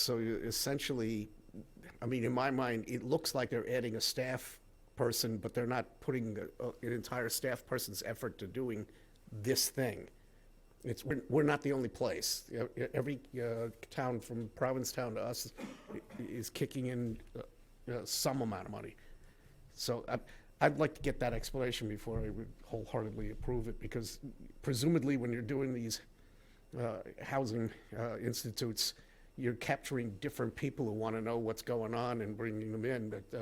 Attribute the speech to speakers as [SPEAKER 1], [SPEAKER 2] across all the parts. [SPEAKER 1] So you- essentially, I mean, in my mind, it looks like they're adding a staff person, but they're not putting a- a- an entire staff person's effort to doing this thing. It's, we're, we're not the only place. You know, Every uh, town from Provincetown to us i- is kicking in uh, uh, some amount of money. So I- I'd like to get that explanation before I would wholeheartedly approve it, because presumably when you're doing these uh, housing uh, institutes, you're capturing different people who want to know what's going on and bringing them in. But uh,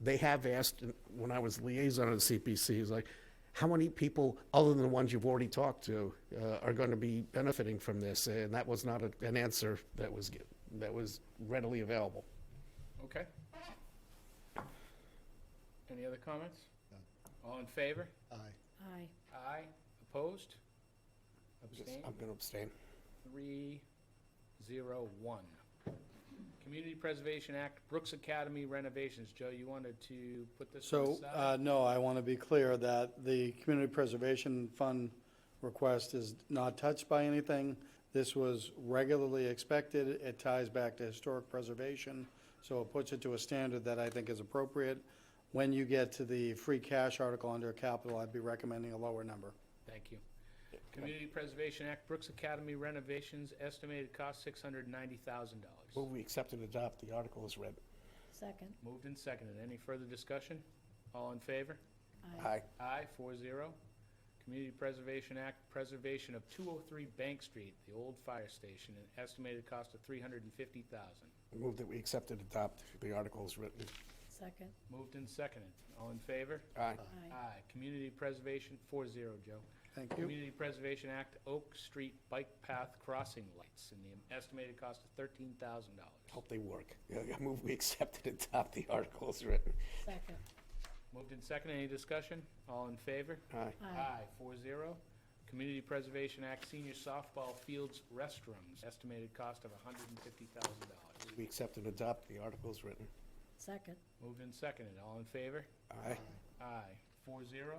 [SPEAKER 1] they have asked, when I was liaison of the CPC, is like, how many people, other than the ones you've already talked to, uh, are going to be benefiting from this? And that was not a- an answer that was, gi- that was readily available.
[SPEAKER 2] Okay. Any other comments? All in favor?
[SPEAKER 3] Aye.
[SPEAKER 2] Aye. Opposed? Abstained?
[SPEAKER 1] I'm going to abstain.
[SPEAKER 2] Three, zero, one. Community Preservation Act, Brooks Academy renovations. Joe, you wanted to put this to the
[SPEAKER 4] So,
[SPEAKER 2] side?
[SPEAKER 4] uh, no, I want to be clear that the Community Preservation Fund request is not touched by anything. This was regularly expected. It ties back to historic preservation, so it puts it to a standard that I think is appropriate. When you get to the free cash article under capital, I'd be recommending a lower number.
[SPEAKER 2] Thank you. Community Preservation Act, Brooks Academy renovations, estimated cost six hundred ninety thousand
[SPEAKER 1] Will
[SPEAKER 2] dollars.
[SPEAKER 1] we accept and adopt the article as read?
[SPEAKER 3] Second.
[SPEAKER 2] Moved and seconded. Any further discussion? All in favor?
[SPEAKER 1] Aye.
[SPEAKER 2] Aye, four zero. Community Preservation Act, preservation of two oh three Bank Street, the old fire station, an estimated cost of three hundred and fifty thousand.
[SPEAKER 1] Move that we accept and adopt the article as written.
[SPEAKER 3] Second.
[SPEAKER 2] Moved and seconded. All in favor?
[SPEAKER 1] Aye.
[SPEAKER 3] Aye.
[SPEAKER 2] Aye. Community Preservation, four zero, Joe.
[SPEAKER 4] Thank you.
[SPEAKER 2] Community Preservation Act, Oak Street Bike Path Crossing Lights, and the estimated cost of thirteen thousand dollars.
[SPEAKER 4] Oh.
[SPEAKER 1] Hope they work. Yeah, I Move we accept and adopt the article as written.
[SPEAKER 3] Second.
[SPEAKER 2] Moved and seconded. Any discussion? All in favor?
[SPEAKER 1] Aye.
[SPEAKER 3] Aye.
[SPEAKER 2] four zero. Community Preservation Act Senior Softball Fields Restrooms, estimated cost of hundred and fifty thousand dollars.
[SPEAKER 1] We accept and adopt the article as written.
[SPEAKER 3] Second.
[SPEAKER 2] Moved and seconded, all in favor?
[SPEAKER 1] Aye.
[SPEAKER 2] Aye, four zero.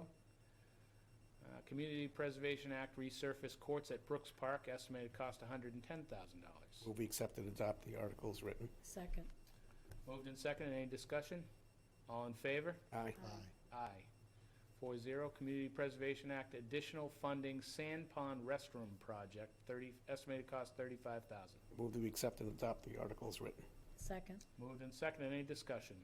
[SPEAKER 2] Uh, Community Preservation Act resurface courts at Brooks Park, estimated cost hundred and ten thousand dollars.
[SPEAKER 1] Move we accept and adopt the article as written.
[SPEAKER 3] Second.
[SPEAKER 2] Moved and seconded, any discussion? All in favor?
[SPEAKER 1] Aye.
[SPEAKER 2] Aye. Four zero, Community Preservation Act additional funding sand pond restroom project, thirty, estimated cost thirty-five thousand.
[SPEAKER 1] Move that we accept and adopt the article as written.
[SPEAKER 3] Second.
[SPEAKER 2] Moved and seconded, any discussion?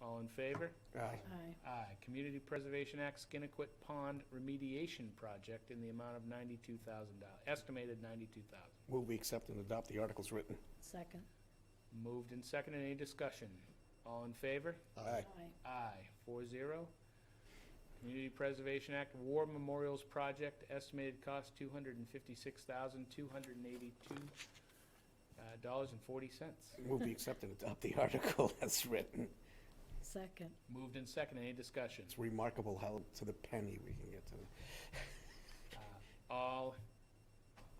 [SPEAKER 2] All in favor?
[SPEAKER 1] Aye.
[SPEAKER 3] Aye.
[SPEAKER 2] Aye. Community Preservation Act Skinnequit Pond Remediation Project in the amount of ninety-two thousand dollars, estimated ninety-two thousand.
[SPEAKER 1] Move we accept and adopt the article as written.
[SPEAKER 3] Second.
[SPEAKER 2] Moved and seconded. Any discussion? All in favor?
[SPEAKER 1] Aye.
[SPEAKER 3] Aye.
[SPEAKER 2] Aye. Four zero. Community Preservation Act War Memorials Project, estimated cost two hundred and fifty-six thousand, two hundred and eighty-two uh, dollars and forty cents.
[SPEAKER 1] Move we accept and adopt the article as written.
[SPEAKER 3] Second.
[SPEAKER 2] Moved and seconded. Any discussion?
[SPEAKER 1] It's remarkable how to the penny we can get to.
[SPEAKER 2] Uh, All,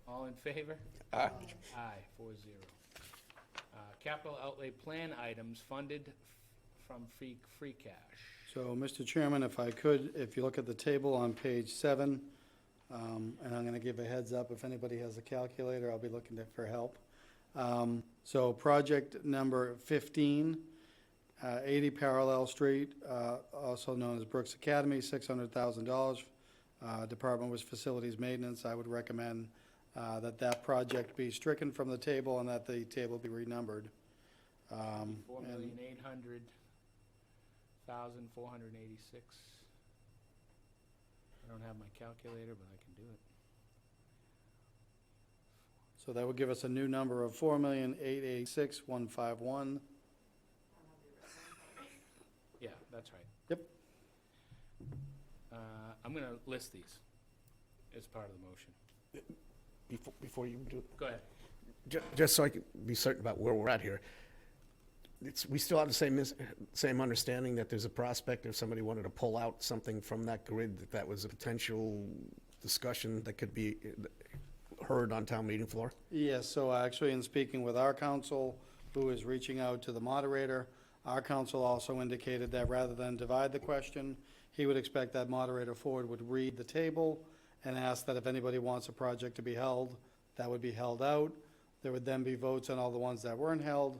[SPEAKER 2] all in favor?
[SPEAKER 1] Aye.
[SPEAKER 2] Aye, four zero. Uh, Capital outlay plan items funded f- from free, free cash.
[SPEAKER 4] So, Mr. Chairman, if I could, if you look at the table on page seven, um, and I'm going to give a heads up, if anybody has a calculator, I'll be looking to- for help. Um, So project number 15, uh, 80 Parallel Street, uh, also known as Brooks Academy, $600,000. Uh, Department was Facilities Maintenance. I would recommend uh, that that project be stricken from the table and that the table be renumbered. Um,
[SPEAKER 2] Four
[SPEAKER 4] and-
[SPEAKER 2] million eight hundred thousand four hundred and eighty-six. I don't have my calculator, but I can do it.
[SPEAKER 4] So that would give us a new number of four million, eight, eight, six, one, five, one.
[SPEAKER 2] Yeah, that's right.
[SPEAKER 4] Yep.
[SPEAKER 2] Uh, I'm gonna list these as part of the motion.
[SPEAKER 1] Before, before you do,
[SPEAKER 2] Go ahead.
[SPEAKER 1] ju- just so I can be certain about where we're at here. It's, we still have the same, mis- same understanding that there's a prospect if somebody wanted to pull out something from that grid, that that was a potential discussion that could be uh, heard on town meeting floor?
[SPEAKER 4] Yes, so actually in speaking with our council, who is reaching out to the moderator, our council also indicated that rather than divide the question, he would expect that moderator Ford would read the table and ask that if anybody wants a project to be held, that would be held out. There would then be votes on all the ones that weren't held.